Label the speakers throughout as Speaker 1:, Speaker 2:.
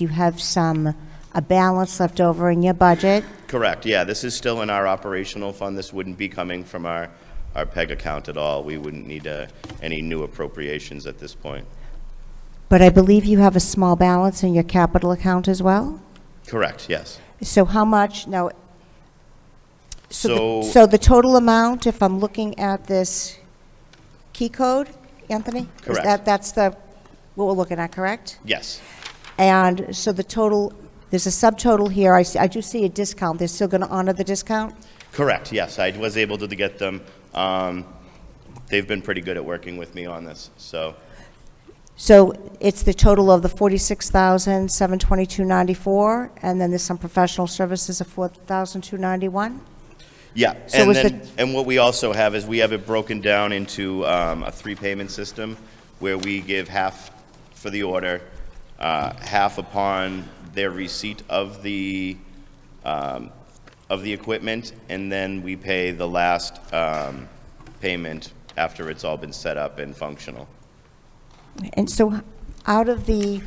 Speaker 1: you have some, a balance left over in your budget.
Speaker 2: Correct, yeah, this is still in our operational fund, this wouldn't be coming from our, our PEG account at all. We wouldn't need uh, any new appropriations at this point.
Speaker 1: But I believe you have a small balance in your capital account as well?
Speaker 2: Correct, yes.
Speaker 1: So how much, now? the-
Speaker 2: So-
Speaker 1: So the total amount, if I'm looking at this key code, Anthony? Is
Speaker 2: Correct.
Speaker 1: that- That's the, what we're looking at, correct?
Speaker 2: Yes,
Speaker 1: And so the total, there's a subtotal here, I, s- I do see a discount, they're still going to honor the discount?
Speaker 2: correct, yes, I was able to get them. Um, They've been pretty good at working with me on this, so,
Speaker 1: So it's the total of the forty-six thousand, seven twenty-two ninety-four, and then there's some professional services of four thousand, two ninety-one?
Speaker 2: yeah.
Speaker 1: So
Speaker 2: And
Speaker 1: was
Speaker 2: then,
Speaker 1: the-
Speaker 2: and what we also have is we have it broken down into um, a three-payment system where we give half for the order, uh, half upon their receipt of the, um, of the equipment, and then we pay the last um, payment after it's all been set up and functional.
Speaker 1: And so out of the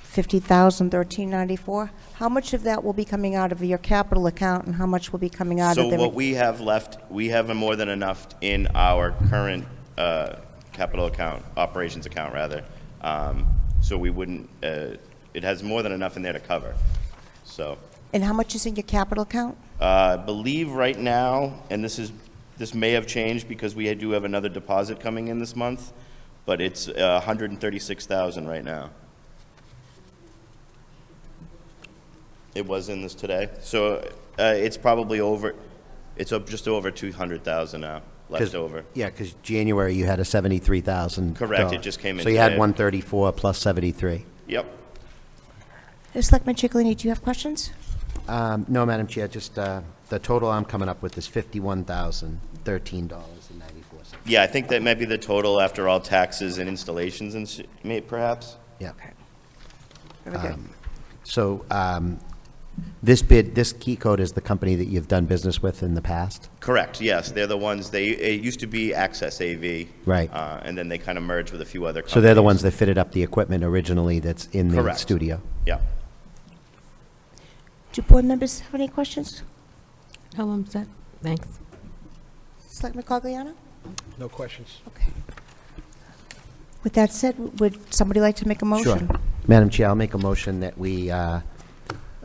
Speaker 1: fifty thousand, thirteen ninety-four, how much of that will be coming out of your capital account, and how much will be coming out of
Speaker 2: So what
Speaker 1: the?
Speaker 2: we have left, we have more than enough in our current uh, capital account, operations account, rather. Um, So we wouldn't, uh, it has more than enough in there to cover. So
Speaker 1: And how much is in your capital account?
Speaker 2: uh, I believe right now, and this is, this may have changed because we do have another deposit coming in this month, but it's uh, 136,000 right now. It was in this today, so uh, it's probably over, it's up just over 200,000 now, left
Speaker 3: 'Cause-
Speaker 2: over.
Speaker 3: Yeah, because January you had a seventy-three thousand.
Speaker 2: Correct, it just came in
Speaker 3: So you had
Speaker 2: today.
Speaker 3: one thirty-four plus seventy-three.
Speaker 2: Yep.
Speaker 1: Uh, Selectman Chicalini, do you have questions?
Speaker 3: Um, no, Madam Chair, just, uh, the total I'm coming up with is fifty-one thousand thirteen dollars and ninety-four cents.
Speaker 2: Yeah, I think that might be the total after all taxes and installations and s- may- perhaps?
Speaker 3: Yeah.
Speaker 1: Very good.
Speaker 3: So, um, this bid, this key code is the company that you've done business with in the past?
Speaker 2: Correct, yes, they're the ones, they, it used to be Access AV.
Speaker 3: Right.
Speaker 2: uh, And then they kind of merged with a few other companies.
Speaker 3: So they're the ones that fitted up the equipment originally that's in the
Speaker 2: Correct.
Speaker 3: studio?
Speaker 2: Yeah.
Speaker 1: Do board members have any questions?
Speaker 4: No, I'm set. Thanks.
Speaker 1: Selectman Cogliano?
Speaker 5: No questions.
Speaker 1: Okay. With that said, would somebody like to make a motion?
Speaker 3: Sure. Madam Chair, I'll make a motion that we uh,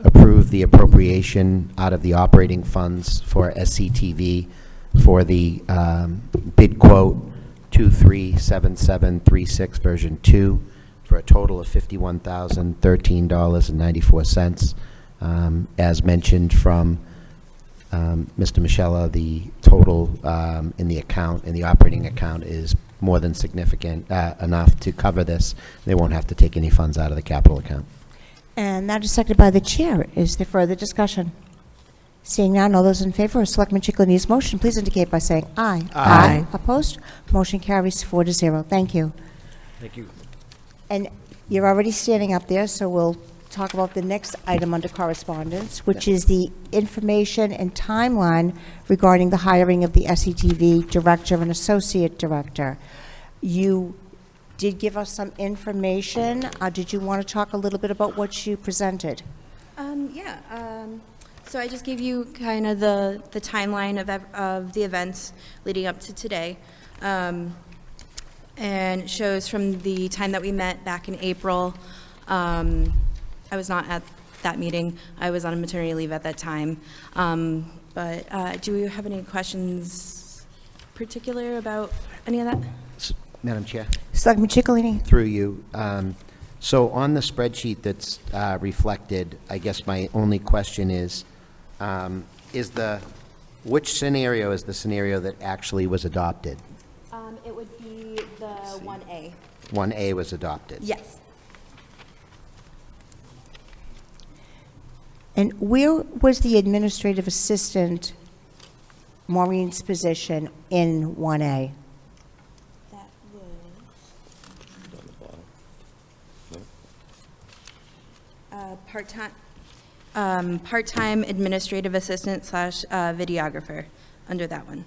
Speaker 3: approve the appropriation out of the operating funds for SCTV for the um, bid quote 237736, version 2, for a total of $51,013.94. Um, As mentioned from um, Mr. Michella, the total um, in the account, in the operating account, is more than significant, uh, enough to cover this. They won't have to take any funds out of the capital account.
Speaker 1: And that is seconded by the chair. Is there further discussion? Seeing none, all those in favor of Selectman Chicalini's motion, please indicate by saying aye.
Speaker 4: Aye.
Speaker 1: Opposed? Motion carries four to zero. Thank you.
Speaker 5: Thank you.
Speaker 1: And you're already standing up there, so we'll talk about the next item under correspondence, which is the information and timeline regarding the hiring of the SETV Director and Associate Director. You did give us some information. Uh, Did you want to talk a little bit about what you presented?
Speaker 6: Um, yeah, um, so I just gave you kind of the, the timeline of, ev- of the events leading up to today. Um, and it shows from the time that we met back in April. Um, I was not at that meeting. I was on maternity leave at that time. Um, but, uh, do you have any questions particular about any of that?
Speaker 3: S- Madam Chair?
Speaker 1: Selectman Chicalini?
Speaker 3: Through you. um, So on the spreadsheet that's uh, reflected, I guess my only question is, um, is the, which scenario is the scenario that actually was adopted?
Speaker 6: Um, it would be the one A.
Speaker 3: 1A was adopted?
Speaker 6: Yes.
Speaker 1: And where was the administrative assistant, Maureen's position, in 1A?
Speaker 6: That was uh, part-time, um, part-time administrative assistant slash uh, videographer, under that one.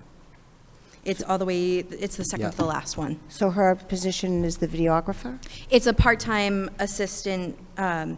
Speaker 6: It's all the way, it's the second to the
Speaker 3: Yeah.
Speaker 6: last one.
Speaker 1: So her position is the videographer?
Speaker 6: It's a part-time assistant, um,